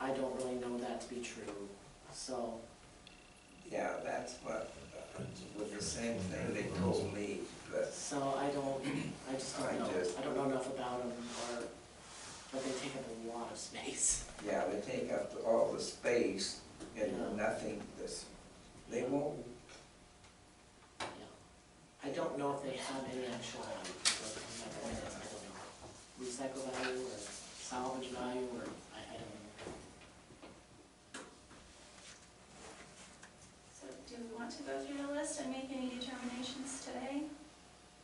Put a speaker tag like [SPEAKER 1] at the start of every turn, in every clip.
[SPEAKER 1] I don't really know that to be true, so,
[SPEAKER 2] Yeah, that's what, uh, with the same thing they told me, but
[SPEAKER 1] so I don't, I just
[SPEAKER 2] I
[SPEAKER 1] don't know.
[SPEAKER 2] just-
[SPEAKER 1] I don't know enough about them or, but they take up a lot of space.
[SPEAKER 2] yeah, they take up all the space
[SPEAKER 1] Yeah.
[SPEAKER 2] and nothing, this, they won't,
[SPEAKER 1] Yeah. I don't know if they have any actual value, but my point is, I don't know. Recycle value or salvage value or, I, I don't know.
[SPEAKER 3] So do we want to go through the list and make any determinations today?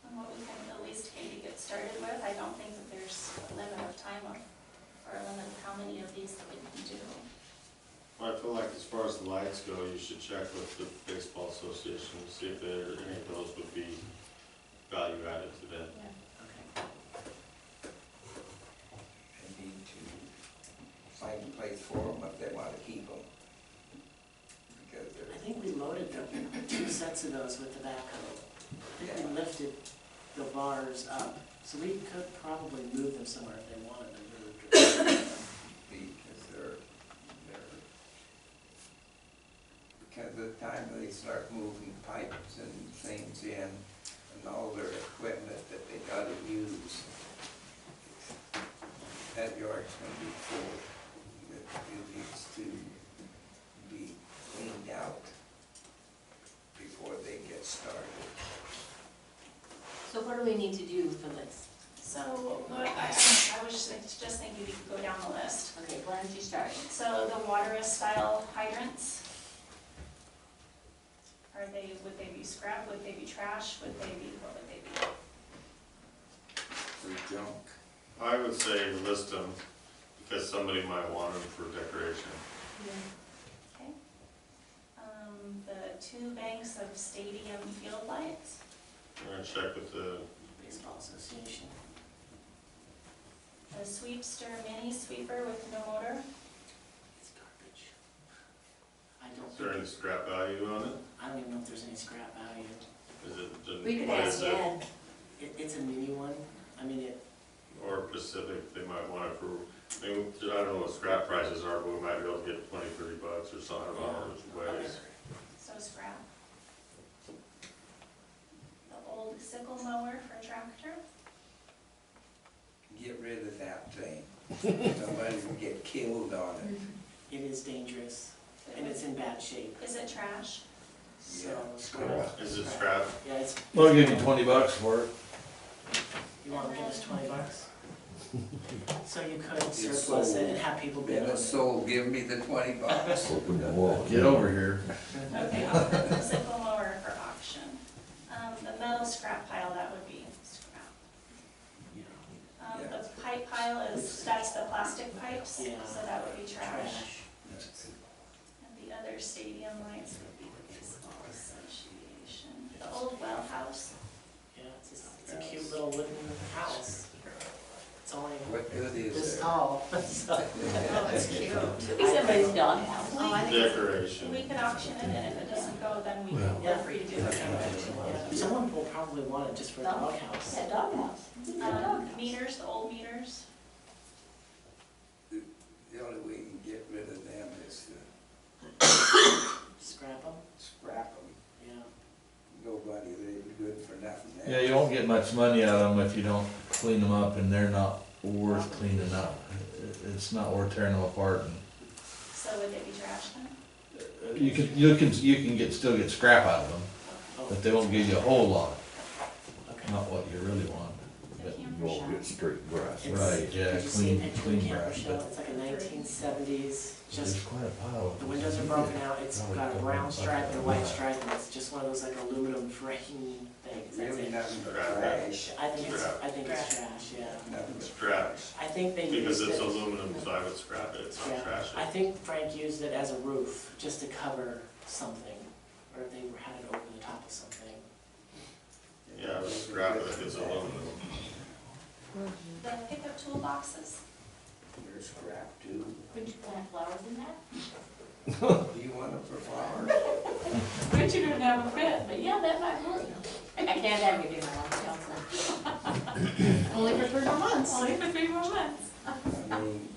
[SPEAKER 3] On what we can at least maybe get started with? I don't think that there's a limit of time of, or a limit of how many of these that we can do.
[SPEAKER 4] I feel like as far as the lights go, you should check with the baseball association to see if there, any of those would be value added to them.
[SPEAKER 1] Okay.
[SPEAKER 2] they need to find a place for them if they want to keep them. Because
[SPEAKER 1] I
[SPEAKER 2] they're,
[SPEAKER 1] think we loaded the two sets of those with tobacco. I think we
[SPEAKER 2] Yeah.
[SPEAKER 1] lifted the bars up, so we could probably move them somewhere if they wanted them moved.
[SPEAKER 2] because they're, they're, because the time they start moving pipes and things in and all their equipment that they gotta use, that yard's gonna be full, that it needs to be cleaned out before they get started.
[SPEAKER 5] So what do we need to do for this?
[SPEAKER 3] So what I, I was just just thinking we could go down the list.
[SPEAKER 5] Okay, why don't you start?
[SPEAKER 3] So the water is style hydrants. Are they, would they be scrap? Would they be trash? Would they be, what would they be?
[SPEAKER 2] For junk.
[SPEAKER 4] I would say list them, because somebody might want them for decoration.
[SPEAKER 3] Okay. Um, the two banks of stadium field lights,
[SPEAKER 4] I'm gonna check with the,
[SPEAKER 1] Baseball Association.
[SPEAKER 3] the sweepster mini sweeper with no motor.
[SPEAKER 1] It's garbage. I don't
[SPEAKER 4] is there any
[SPEAKER 1] think,
[SPEAKER 4] scrap value on it?
[SPEAKER 1] I don't even know if there's any scrap value.
[SPEAKER 4] Is it, the-
[SPEAKER 5] We could
[SPEAKER 4] what is
[SPEAKER 5] ask
[SPEAKER 4] it?
[SPEAKER 5] Ed.
[SPEAKER 1] It, it's a mini one. I mean, it,
[SPEAKER 4] Or Pacific, they might want it for, I mean, I don't know what scrap prices are, but we might be able to get twenty, thirty bucks or something, I don't know which ways.
[SPEAKER 3] So scrap. The old sickle mower for tractor.
[SPEAKER 2] Get rid of that thing. Don't let them get killed on it.
[SPEAKER 1] it is dangerous and it's in bad shape,
[SPEAKER 3] Is it trash?
[SPEAKER 1] so.
[SPEAKER 2] Yeah, scrap.
[SPEAKER 4] Is it scrap?
[SPEAKER 1] Yeah, it's.
[SPEAKER 6] I'll give you twenty bucks for it.
[SPEAKER 1] You wanna give us twenty bucks? So you could
[SPEAKER 2] It's
[SPEAKER 1] surplus it
[SPEAKER 2] sold.
[SPEAKER 1] and have people bid on
[SPEAKER 2] Then
[SPEAKER 1] it.
[SPEAKER 2] a soul give me the twenty bucks.
[SPEAKER 6] Get over here.
[SPEAKER 3] Okay, I'll put the sickle mower for auction. Um, the metal scrap pile, that would be scrap.
[SPEAKER 1] Yeah.
[SPEAKER 3] Um, the pipe pile is, that's the plastic pipes, so that would be trash.
[SPEAKER 1] Trash.
[SPEAKER 3] And the other stadium lights would be the baseball association, the old well house.
[SPEAKER 1] Yeah, it's a, it's a cute little wooden house. It's only
[SPEAKER 2] What good is
[SPEAKER 1] this
[SPEAKER 2] it?
[SPEAKER 1] tall, so.
[SPEAKER 3] Oh, it's cute.
[SPEAKER 5] Could be somebody's doghouse.
[SPEAKER 3] Oh, I think
[SPEAKER 4] Decoration.
[SPEAKER 3] we could auction it, and if it doesn't go, then we,
[SPEAKER 6] Well.
[SPEAKER 3] we're free to do it.
[SPEAKER 1] Yeah, Someone will probably want it just for the doghouse.
[SPEAKER 5] Yeah, doghouse. Uh,
[SPEAKER 3] Um, meters, the old meters,
[SPEAKER 2] The only way you can get rid of them is to
[SPEAKER 1] Scrap them,
[SPEAKER 2] scrap them.
[SPEAKER 1] yeah.
[SPEAKER 2] Nobody, they're good for nothing.
[SPEAKER 6] Yeah, you won't get much money out of them if you don't clean them up and they're not worth cleaning up. It- It's not worth tearing them apart and
[SPEAKER 3] so would they be trash then?
[SPEAKER 6] uh, you can, you can, you can get, still get scrap out of them,
[SPEAKER 1] Oh,
[SPEAKER 6] but they won't give you a whole lot,
[SPEAKER 1] okay.
[SPEAKER 6] not what you really want.
[SPEAKER 3] The
[SPEAKER 6] But-
[SPEAKER 3] camper
[SPEAKER 7] Well,
[SPEAKER 3] shop.
[SPEAKER 7] good straight grass.
[SPEAKER 1] It's-
[SPEAKER 6] Right, yeah,
[SPEAKER 1] Did you see a
[SPEAKER 6] clean-
[SPEAKER 1] picture of
[SPEAKER 6] clean
[SPEAKER 1] the camper
[SPEAKER 6] brass,
[SPEAKER 1] shell?
[SPEAKER 6] but-
[SPEAKER 1] It's like a nineteen seventies, just
[SPEAKER 6] There's quite a pile of
[SPEAKER 1] The
[SPEAKER 6] them.
[SPEAKER 1] windows are broken out, it's got a brown stripe and a white stripe, and it's just one of those like aluminum frame things, that's
[SPEAKER 2] Really
[SPEAKER 1] it.
[SPEAKER 2] nothing but trash,
[SPEAKER 1] I think it's, I think it's trash, yeah.
[SPEAKER 2] nothing but
[SPEAKER 4] Scrap,
[SPEAKER 1] I think they
[SPEAKER 4] because
[SPEAKER 1] used it.
[SPEAKER 4] it's aluminum, so I would scrap it, it's not
[SPEAKER 1] Yeah,
[SPEAKER 4] trash.
[SPEAKER 1] I think Frank used it as a roof, just to cover something, or they had it over the top of something.
[SPEAKER 4] Yeah, I would scrap it if it's aluminum.
[SPEAKER 3] The pickup toolboxes,
[SPEAKER 2] They're scrap too.
[SPEAKER 5] Would you plant flowers in that?
[SPEAKER 2] Do you want them for flowers?
[SPEAKER 5] Richard would never fit, but yeah, that might work. I can't have it in my own house. Only for three more months. Only for three more months.
[SPEAKER 2] I mean,